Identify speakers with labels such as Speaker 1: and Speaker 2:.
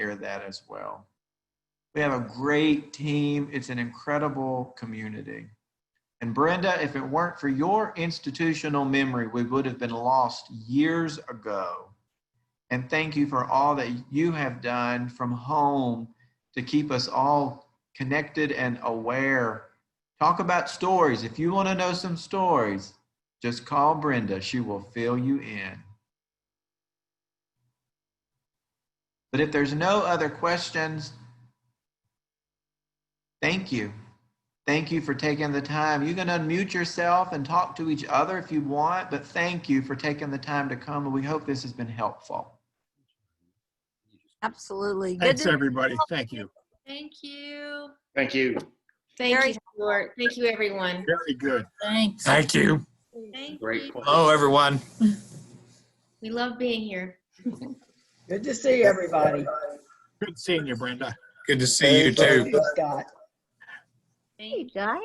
Speaker 1: care of that as well. We have a great team. It's an incredible community. And Brenda, if it weren't for your institutional memory, we would have been lost years ago. And thank you for all that you have done from home to keep us all connected and aware. Talk about stories. If you want to know some stories, just call Brenda. She will fill you in. But if there's no other questions, thank you. Thank you for taking the time. You can unmute yourself and talk to each other if you want, but thank you for taking the time to come, and we hope this has been helpful.
Speaker 2: Absolutely. Good
Speaker 3: Thanks,
Speaker 2: to,
Speaker 3: everybody. Thank you.
Speaker 4: Thank you.
Speaker 5: Thank you.
Speaker 6: Thank
Speaker 2: Very-
Speaker 6: you, Stuart. Thank you, everyone.
Speaker 3: Very good.
Speaker 7: Thanks.
Speaker 8: Thank you.
Speaker 4: Thank
Speaker 5: Great
Speaker 4: you.
Speaker 5: point.
Speaker 8: Hello, everyone.
Speaker 6: We love being here.
Speaker 9: Good to see everybody.
Speaker 3: Good seeing you, Brenda.
Speaker 8: Good to see you too.
Speaker 9: Scott.
Speaker 6: Thank
Speaker 2: hey, guys.